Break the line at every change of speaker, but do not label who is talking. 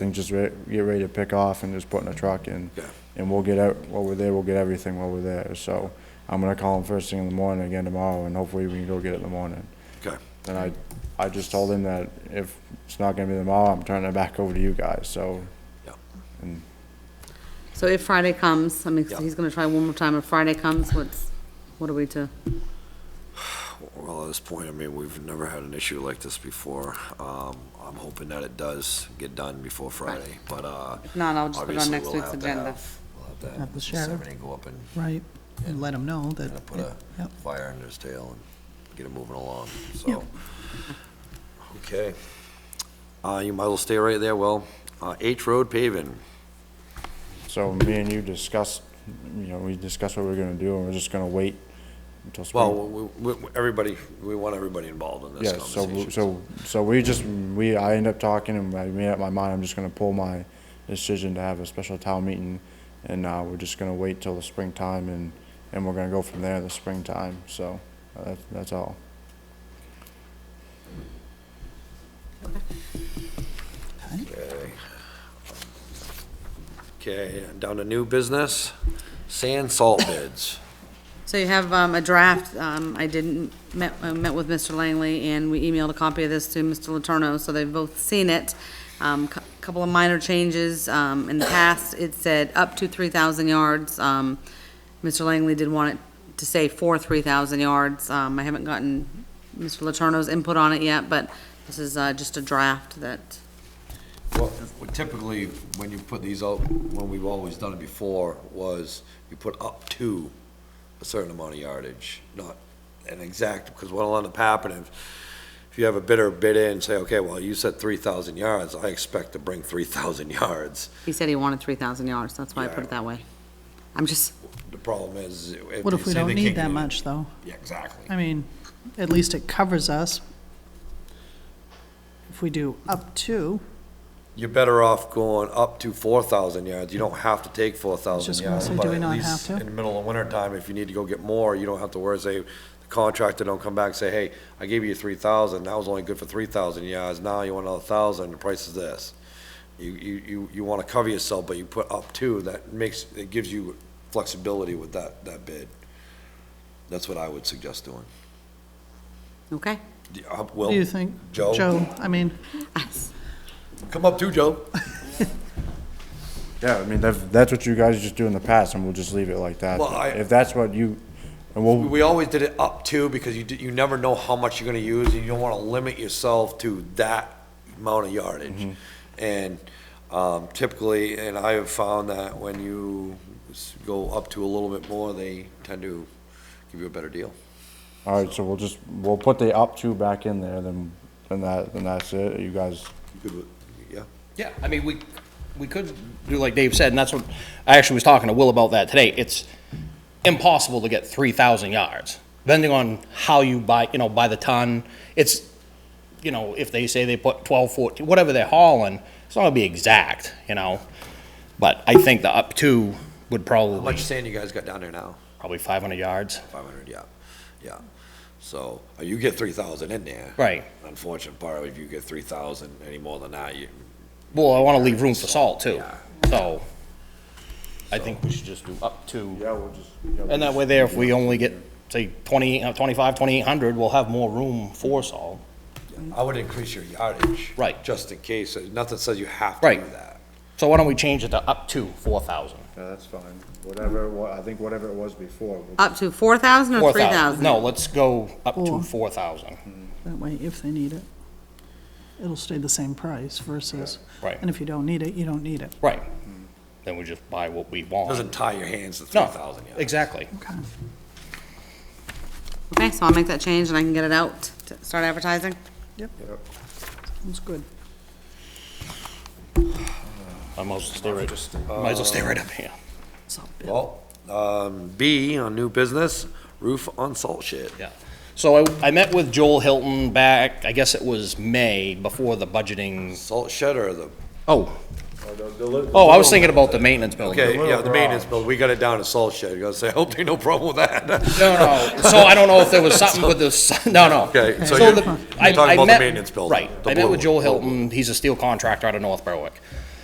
And just re- get ready to pick off and just putting a truck in.
Yeah.
And we'll get out, while we're there, we'll get everything while we're there. So I'm gonna call him first thing in the morning again tomorrow and hopefully we can go get it in the morning.
Okay,
And I, I just told him that if it's not gonna be tomorrow, I'm turning it back over to you guys, so.
yeah,
and
So if Friday comes, I mean, 'cause
Yeah.
he's gonna try one more time, if Friday comes, what's, what are we to?
well, at this point, I mean, we've never had an issue like this before. Um, I'm hoping that it does get done before Friday, but, uh.
If not, I'll just put it on
obviously
next
we'll
week's
have to
agenda.
have- We'll have to have.
Have the sheriff.
Seventy go up and
Right, and let them know that.
kind of put a
Yep.
fire under his tail and get it moving along, so. Okay. Uh, you might as well stay right there, Well, Uh, H Road paving,
So me and you discussed, you know, we discussed what we're gonna do and we're just gonna wait until spring.
well, we, we, we- everybody, we want everybody involved in this
Yeah, so,
conversation.
w- so, so we just, we, I end up talking and I made up my mind, I'm just gonna pull my decision to have a special town meeting. And, uh, we're just gonna wait till the springtime and, and we're gonna go from there in the springtime, so, uh, that's, that's all.
Okay. Okay, down to new business, sand salt bids.
So you have, um, a draft, um, I didn't, met, I met with Mr. Langley, and we emailed a copy of this to Mr. Letourneau, so they've both seen it. Um, cou- couple of minor changes, um, in the past, it said up to three thousand yards, um, Mr. Langley did want it to say for three thousand yards, um, I haven't gotten Mr. Letourneau's input on it yet, but this is, uh, just a draft that
Well, typically, when you put these out, when we've always done it before, was you put up to a certain amount of yardage, not an exact, because what'll end up happening, if you have a bidder bid in, say, okay, well, you said three thousand yards, I expect to bring three thousand yards.
He said he wanted three thousand yards, that's why I put
Yeah.
it that way. I'm just,
The problem is. if
What
they
if we
say
don't
they
need
can't
that
do it-
much, though?
Yeah, exactly.
I mean, at least it covers us. If we do up to,
You're better off going up to four thousand yards, you don't have to take four thousand
Just gonna
yards,
say,
but
do we
at
not
least
have
in
to?
the middle of winter time, if you need to go get more, you don't have to worry, say, the contractor don't come back and say, hey, I gave you three thousand, that was only good for three thousand yards, now you want another thousand, the price is this. You, you, you, you wanna cover yourself, but you put up to, that makes, it gives you flexibility with that, that bid. That's what I would suggest doing.
okay.
Do you- uh,
what
Will,
do you think?
Joe?
Joe, I mean,
come up too, Joe.
Yeah, I mean, that's, that's what you guys just do in the past and we'll just leave it like that.
Well, I-
If that's what you, and we'll,
We always did it up to, because you, d- you never know how much you're gonna use, and you don't wanna limit yourself to that amount of yardage. And, um, typically, and I have found that when you s- go up to a little bit more, they tend to give you a better deal.
All right, so we'll just, we'll put the up two back in there, then, then that, then that's it, you guys,
You could, Yeah,
Yeah, I mean, we, we could do like Dave said, and that's what, I actually was talking to Will about that today. It's impossible to get three thousand yards, depending on how you buy, you know, by the ton. It's, you know, if they say they put twelve, fourteen, whatever they're hauling, it's not gonna be exact, you know? But I think the up to would
how
probably,
much sand you guys got down there now?
probably five hundred yards.
Five hundred, yeah, yeah. So, uh, you get three thousand in there.
Right.
Unfortunate part, if you get three thousand any more than that, you,
Well, I wanna leave room for salt too,
Yeah.
so I think we should just do up to.
Yeah, we'll just.
And that way there, if we only get, say, 20, uh, 25, 2,800, we'll have more room for salt.
I would increase your yardage.
Right.
Just in case, uh, nothing says you have to do
Right.
that.
So why don't we change it to up to 4,000?
Yeah, that's fine, whatever, it wa- I think whatever it was before. we'll-
Up to four thousand or Oh, three
4,000.
thousand?
No, let's go up to
Four.
4,000.
that way, if they need it, it'll stay the same price versus.
Right.
And if you don't need it, you don't need it.
Right. Then we just buy what we want.
Doesn't tie your hands to three
No,
thousand yards.
exactly.
Okay.
Okay, so I'll make that change and I can get it out to start advertising.
Yep. Sounds good.
I might as well stay right, might as well stay right up here.
Salt bid.
Well, um, B on new business, roof on salt shed.
Yeah. So I, I met with Joel Hilton back, I guess it was May, before the budgeting.
Salt shed or the,
Oh, oh, I was thinking about the maintenance building.
okay, yeah, the
little
maintenance
garage.
bill, we got it down to salt shed. You gotta say, I hope they no problem with that.
No, no, no. so I don't know if there was something with this, no, no.
Okay, so you're-
the-
you're
I-
talking
I
about the
met-
maintenance building,
Right,
the
I met
blue
with Joel
one.
Hilton, he's a steel contractor out of North Berwick.